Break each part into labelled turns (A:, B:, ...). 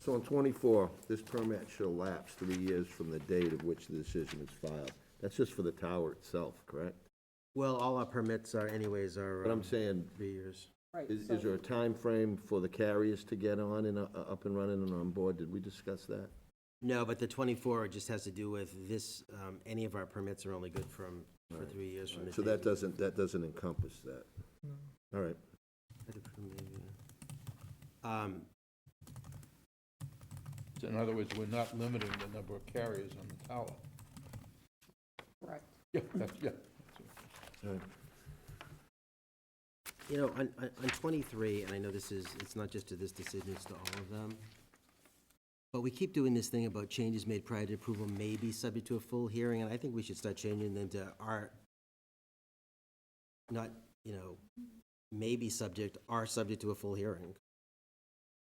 A: So on twenty-four, this permit shall lapse three years from the date of which the decision is filed. That's just for the tower itself, correct?
B: Well, all our permits are anyways are.
A: But I'm
B: um,
A: saying,
B: Three years.
C: Right,
A: is,
C: so-
A: is there a time frame for the carriers to get on and, uh, up and running and on board? Did we discuss that?
B: No, but the twenty-four just has to do with this, um, any of our permits are only good from, for
A: Right,
B: three years from the.
A: So
B: date.
A: that doesn't, that doesn't encompass that. All right.
B: Um,
D: So In other words, we're not limiting the number of carriers on the tower.
C: Correct.
D: Yeah, that's, yeah.
A: All right.
B: You know, on, on on twenty-three, and I know this is, it's not just to this decision, it's to all of them. But we keep doing this thing about changes made prior to approval may be subject to a full hearing, and I think we should start changing them to are not, you know, may be subject, are subject to a full hearing.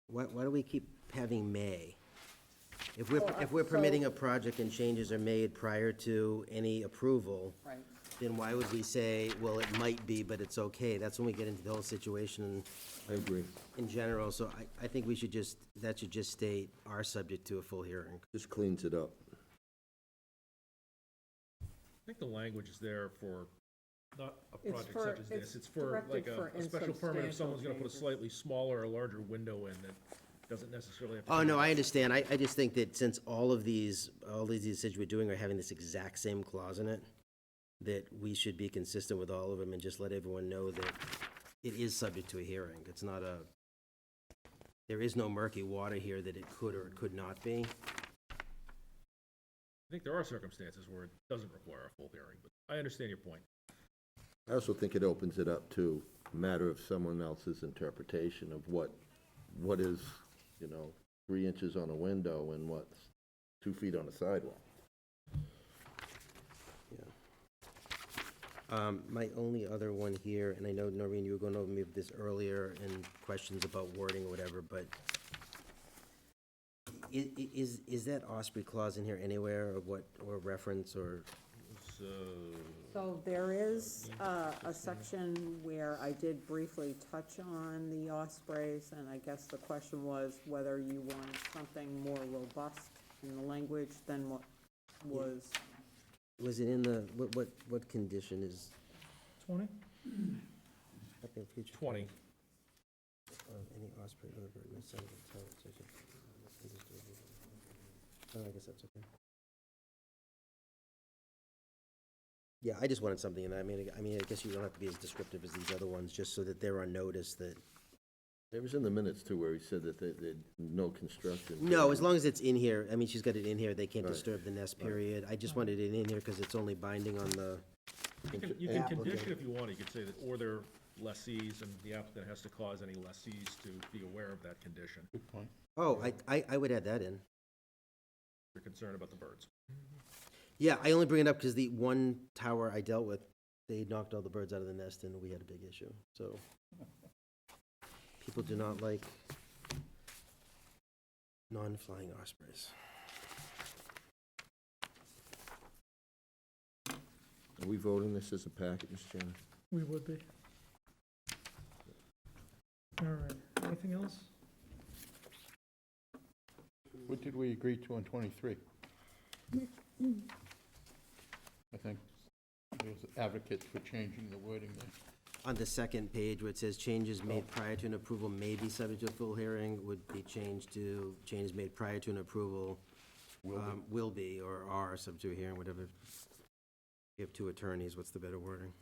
B: Why, why do we keep having may? If we're,
C: Well, I-
B: if we're
C: so-
B: permitting a project and changes are made prior to any approval,
C: Right.
B: then why would we say, well, it might be, but it's okay? That's when we get into the whole situation in,
A: I agree.
B: in general, so I, I think we should just, that should just state are subject to a full hearing.
A: Just cleans it up.
E: I think the language is there for, not a
C: It's
E: project
C: for-
E: such as
C: it's
E: this, it's for
C: directed
E: like
C: for
E: a, a special permit if
C: insubstantial
E: someone's gonna put a
C: changes.
E: slightly smaller or larger window in that doesn't necessarily have to.
B: Oh,
E: be-
B: no, I understand. I, I just think that since all of these, all these decisions we're doing are having this exact same clause in it, that we should be consistent with all of them and just let everyone know that it is subject to a hearing. It's not a, there is no murky water here that it could or it could not be.
E: I think there are circumstances where it doesn't require a full hearing, but I understand your point.
A: I also think it opens it up to a matter of someone else's interpretation of what, what is, you know, three inches on a window and what's two feet on a sidewalk.
B: Um, My only other one here, and I know, Noreen, you were going over me with this earlier and questions about wording or whatever, but i- i- is, is that Osprey clause in here anywhere or what, or reference or?
E: So,
C: So there is uh, a section where I did briefly touch on the ospreys, and I guess the question was whether you wanted something more robust in the language than what was,
B: Was it in the, what, what, what condition is?
E: Twenty?
B: up in future
E: Twenty.
B: of Any Osprey or bird may settle in town, so it should- Oh, I guess that's okay. Yeah, I just wanted something in that. I mean, I- I mean, I guess you don't have to be as descriptive as these other ones, just so that they're on notice that.
A: It was in the minutes too where he said that they, they, no construction.
B: No, as long as it's in here, I mean, she's got it in here, they can't
A: Right.
B: disturb the nest period. I just wanted it in here because it's only binding on the,
E: You can, you can
B: Applicant.
E: condition if you want, you could say that, or their lessees, and the applicant has to cause any lessees to be aware of that condition. If
D: Good point.
B: oh, I, I, I would add that in.
E: You're concerned about the birds.
B: Yeah, I only bring it up because the one tower I dealt with, they knocked all the birds out of the nest and we had a big issue, so. People do not like non-flying ospreys.
A: Are we voting this as a package, Mr. Chairman?
F: We would be. All right, anything else?
D: What did we agree to on 23? I think there was advocates for changing the wording there.
B: On the second page where it says changes made prior to an approval may be subject to a full hearing would be changed to changes made prior to an approval
D: Will be.
B: um, will be or are subject to a hearing, whatever. You have two attorneys, what's the better wording?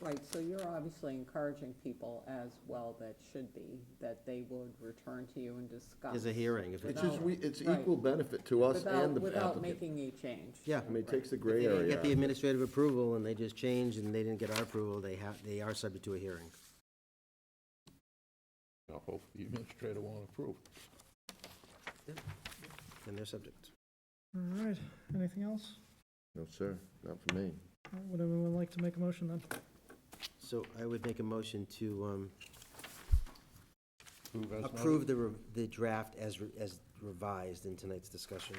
C: right, so you're obviously encouraging people as well that should be, that they would return to you and discuss.
B: Is a hearing if
A: It's
B: it's.
A: just,
C: No,
A: we, it's
C: right.
A: equal benefit to us
C: Without,
A: and the
C: without
A: applicant.
C: making a change.
B: Yeah.
A: I mean, it takes the
B: If
A: gray
B: They didn't get the
A: area.
B: administrative approval and they just changed and they didn't get our approval, they have, they are subject to a hearing.
D: I hope the administrator won't approve.
B: And they're subject.
F: All right, anything else?
A: No, sir, not for me.
F: All right, Would anyone like to make a motion then?
B: So I would make a motion to, um,
D: Approve as noted?
B: approve the, re- the draft as, re- as revised in tonight's discussion.